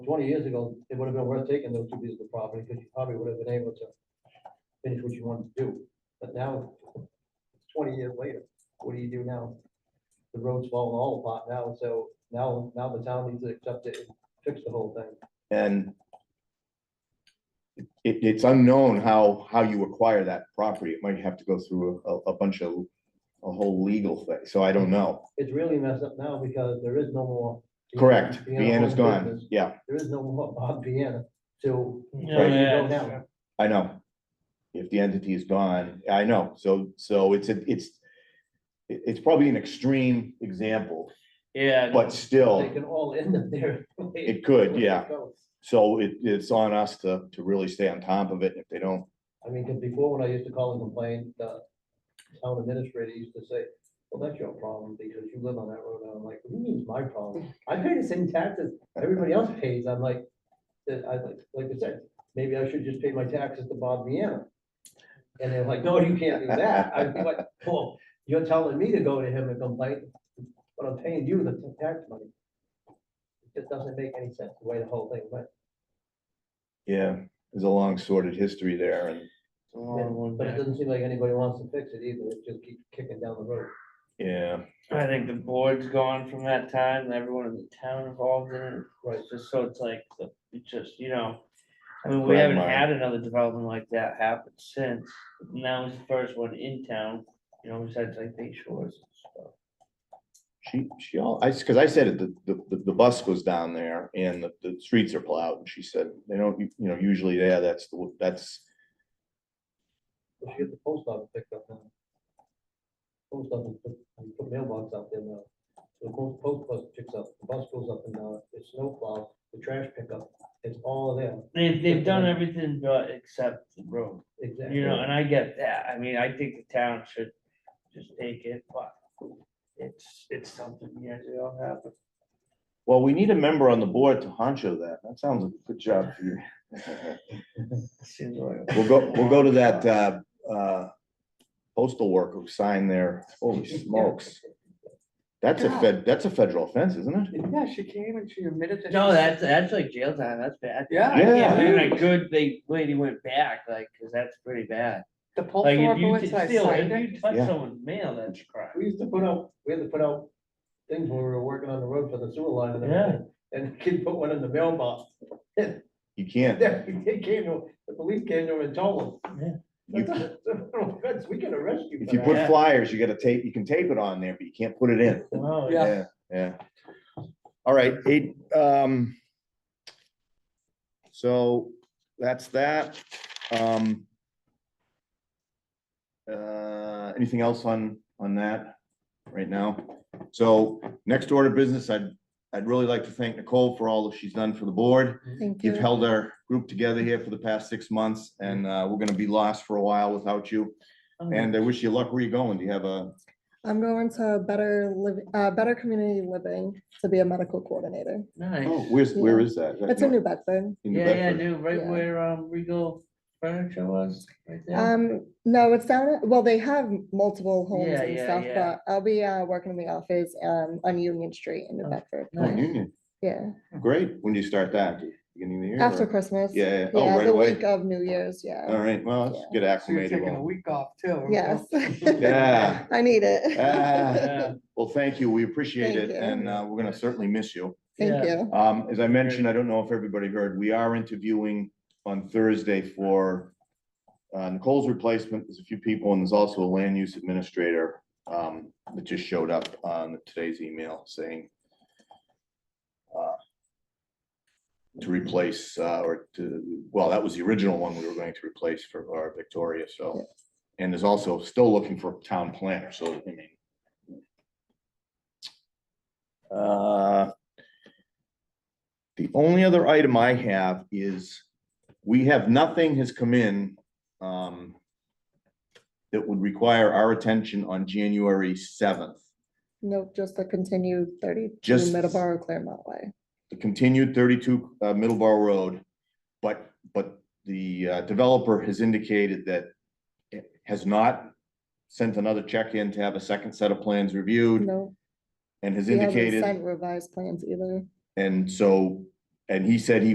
Twenty years ago, it would have been worth taking those two pieces of property, because you probably would have been able to finish what you wanted to do, but now, it's twenty years later, what do you do now? The road's falling all apart now, so now, now the town needs to accept it, and fix the whole thing. And it, it's unknown how, how you acquire that property. It might have to go through a, a bunch of, a whole legal thing, so I don't know. It's really messed up now, because there is no more. Correct, Vienna Vienna's Home gone, Business. yeah, There is no more Bob Vienna, so. Right. yeah, now. I know. If the entity is gone, I know, so, so it's, a it's, it- it's probably an extreme example, Yeah. no, but still, They can all end up there. it could, yeah. So it, it's on us to, to really stay on top of it. If they don't, I mean, 'cause before when I used to call and complain, uh, the town administrator used to say, well, that's your problem because you live on that road. And I'm like, what do you mean it's my problem? I pay the same taxes everybody else pays. I'm like, that I, like like I said, maybe I should just pay my taxes to Bob Vienna. And they're like, no, you can't do that. I'd be like, well, you're telling me to go to him and complain, but I'm paying you the tax money. It just doesn't make any sense the way the whole thing went. yeah, there's a long sordid history there and, it's a long one But it back. doesn't seem like anybody wants to fix it either. It just keeps kicking down the road. yeah. I think the board's gone from that time and everyone in the town involved in it. Right. It's just so it's like, the- it's just, you know. I mean, we haven't Quagmire. had another development like that happen since. Now is the first one in town, you know, besides like Bay Shores and stuff. She, she, all I, because I said it, the, the, the bus goes down there and the, the streets are plowed, and she said, they don't, you know, usually there, that's, the that's, We should get the post office picked up now. Post office, put- we put mailbox out there now. The post, post bus picks up, the bus goes up and down, it's snowplow, the trash pickup, it's all there. They've, they've done everything but uh, except the road, Exactly. you know, and I get that. I mean, I think the town should just take it, but it's, it's something years ago happened. well, we need a member on the board to honcho that. That sounds like a good job for you. Seems like- We'll go, we'll go to that, uh, uh, postal worker who signed there. Holy smokes. That's a fed, that's a federal offense, isn't it? Yeah, she came and she admitted that. No, she- that's, that's like jail time, that's bad. Yeah. Yeah. And then a good, they, lady went back, like, cause that's pretty bad. The post Like, if office you went, t- so I still, signed it. if you touch Yeah. someone's mail, that's a crime. We used to put out, we had to put out things when we were working on the road for the sewer line and Yeah. everything. And the kid put one in the mailbox. You can't, They came to, the police came to him and told him. You- That's an offense, We can arrest you if for you that. put flyers, you gotta tape, you can tape it on there, but you can't put it in. Oh, Yeah. Yeah, yeah. All right, eight, um. So that's that, um. Uh, anything else on, on that right now? So next order of business, I'd, I'd really like to thank Nicole for all that she's done for the board. Thank You've you. held our group together here for the past six months and, uh, we're gonna be lost for a while without you. And I wish you luck where you're going. Do you have a, I'm going to better live, uh, better community living to be a medical coordinator. Nice. oh, where's, where is that? Is that It's in North- New Bedford. in New Yeah, yeah, Bedford? dude, right Yeah. where, um, Regal Furniture was, right there. Um, no, it's down, at- well, they have multiple homes Yeah, and yeah, stuff, yeah. but I'll be, uh, working in the office, um, on Union Street in New Oh, Bedford. Oh, in Nice. Union, Yeah, great. When do you start that? Beginning of the year? after or- Christmas. Yeah, yeah. Oh, right the away. week Of New Year's, All yeah. right, well, let's So get you're acclimated. taking a well. week off too. huh? Yes. Yeah, I need it. Ah, Yeah, well, thank you. We appreciate it Thank you. and uh, we're gonna certainly miss you. yeah. Thank you. Um, as I mentioned, I don't know if everybody heard, we are interviewing on Thursday for uh, Nicole's replacement. There's a few people and there's also a land use administrator um, that just showed up on today's email saying uh, to replace, uh, or to, well, that was the original one we were going to replace for our Victoria, so. And there's also still looking for a town planner, so I mean. Uh, the only other item I have is, we have, nothing has come in um, that would require our attention on January seventh. Nope, just to continue thirty-two Just- Middleborough Claremont Way. The continued thirty-two uh, Middleborough Road, but, but the uh, developer has indicated that it has not sent another check in to have a second set of plans reviewed No, and has we haven't indicated. sent revised plans either. And so And he said he